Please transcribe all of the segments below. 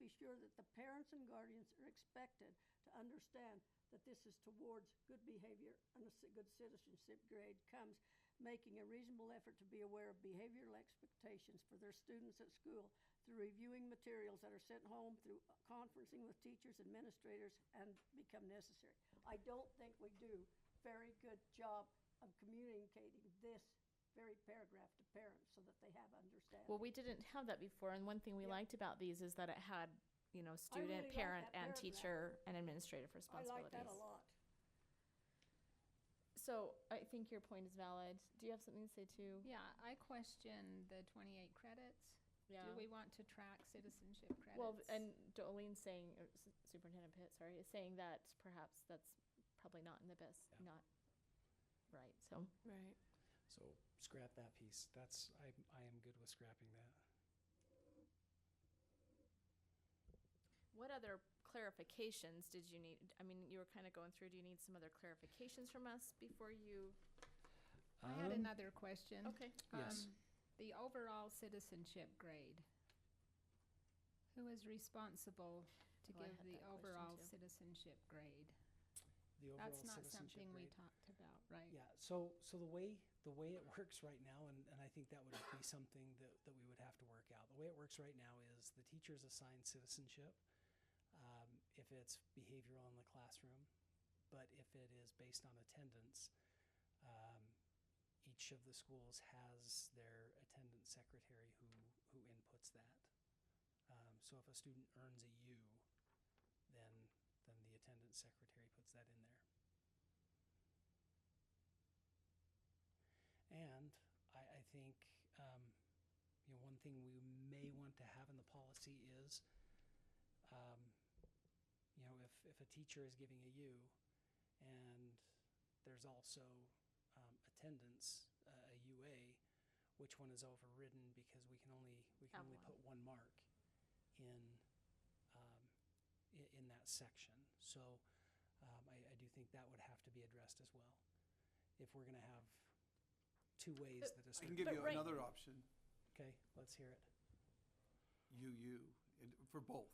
be sure that the parents and guardians are expected to understand that this is towards good behavior and a ci- good citizenship grade comes making a reasonable effort to be aware of behavioral expectations for their students at school through reviewing materials that are sent home, through conferencing with teachers, administrators, and become necessary. I don't think we do very good job of communicating this very paragraph to parents so that they have understanding. Well, we didn't have that before, and one thing we Yeah. liked about these is that it had, you know, really student, like parent, that and paragraph. teacher and administrative I like responsibilities. that a lot. So I think your point is valid. Do you have something to say too? Yeah, I question the twenty-eight credits. Yeah. Do we want to track citizenship credits? Well, and Jolene's saying, or S- Superintendent Pitt, sorry, is saying that perhaps that's probably not in the best, Yeah. not right, so. Right. So scrap that piece. That's, I, I am good with scrapping that. What other clarifications did you need? I mean, you were kind of going through, do you need some other clarifications from us before you? I had Um, another question. Okay. Yes. Um, The overall citizenship grade. Who is responsible to Oh, I give had that the question overall too. citizenship grade? The overall That's not citizenship something we rate- talked about, right? Yeah, so, so the way, the way it works right now, and, and I think that would be something that, that we would have to work out. The way it works right now is the teacher's assigned citizenship, um, if it's behavioral in the classroom. But if it is based on attendance, um, each of the schools has their attendance secretary who, who inputs that. Um, so if a student earns a U, then, then the attendance secretary puts that in there. And I, I think, um, you know, one thing we may want to have in the policy is, um, you know, if, if a teacher is giving a U and there's also, um, attendance, uh, a UA, which one is overridden because we can only, we can Have only one. put one mark in, um, i- in that section. So, um, I, I do think that would have to be addressed as well. If we're gonna have two ways that a I can student. give But you right- another option, Okay, let's hear it. UU, and- for both.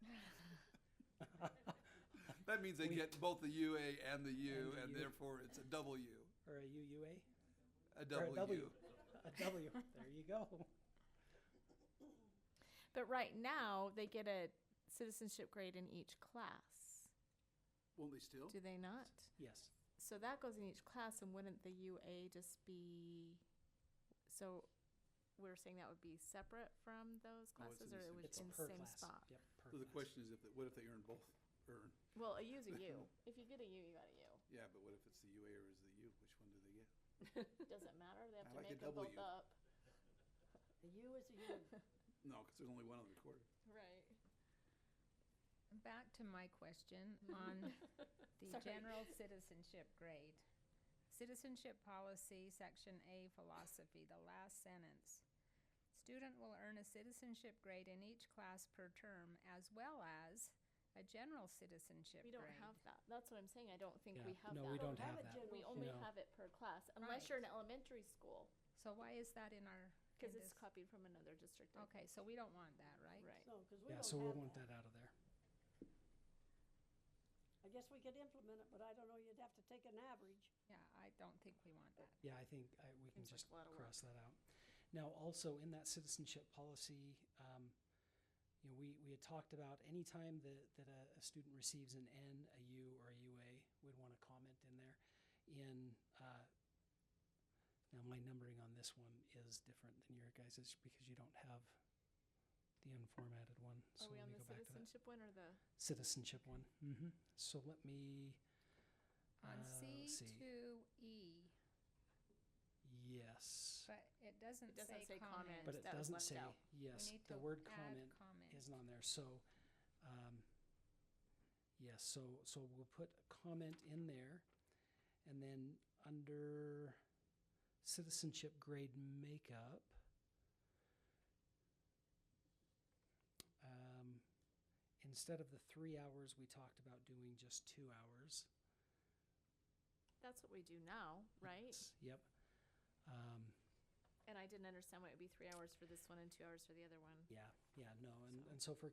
No, I'm just kidding. That means they get both the UA and the U, And the U. and therefore it's a W, Or a UUA? a Or a W. A W, there you go. But right now, they get a citizenship grade in each class, Won't they still? do they not? Yes, So that goes in each class, and wouldn't the UA just be, so we're saying that would be separate from those No, Oh, it's classes, in or the it same- would it's in the per same class. spot? Yep, per So the class. question is if, what if they earn both, earn? Well, a U's a U. If you get a U, you got a Yeah, but what if it's the UA or is the U? Which one do they get? U. Doesn't matter, they have I to like a make them both W. up. The U is a U. No, because there's only one on the recorder. Right. Back to my question on the Sorry. general citizenship grade. Citizenship policy, section A, philosophy, the last sentence. Student will earn a citizenship grade in each class per term as well as a general citizenship We grade. don't have that. That's what I'm saying, I don't think we Yeah, have that. no, we don't have a that. general We only No. have it per class, unless Right. you're an elementary school, So why is that in our? in because it's this- copied from another district. I Okay, so we don't want that, right? Right. No, because we Yeah, so we'll don't have want that. that out of there. I guess we could implement it, but I don't know, you'd have to take an average. Yeah, I don't think we want that. Yeah, I think I, we can Seems like just a lot of work. cross that out. Now, also in that citizenship policy, um, you know, we, we had talked about any time that, that a, a student receives an N, a U, or a UA, we'd want to comment in there. In uh, now, my numbering on this one is different than your guys's because you don't have the unformatted one. think. Are we on let me the go back to that citizenship one or the? citizenship one. hmm So let me. uh, On C let's see. two E, Yes. but It it doesn't doesn't say say comment. comment. But it that was left doesn't say, out. yes, We need to the word add comment comment. isn't on there, so, um, yes, so, so we'll put comment in there. And then under citizenship grade makeup, um, instead of the three hours, we talked about doing just two hours. That's what we do now, right? Yep. Um, And I didn't understand why it would be three hours for this one and two hours for the other one. Yeah, yeah, no, and, So- and so if we're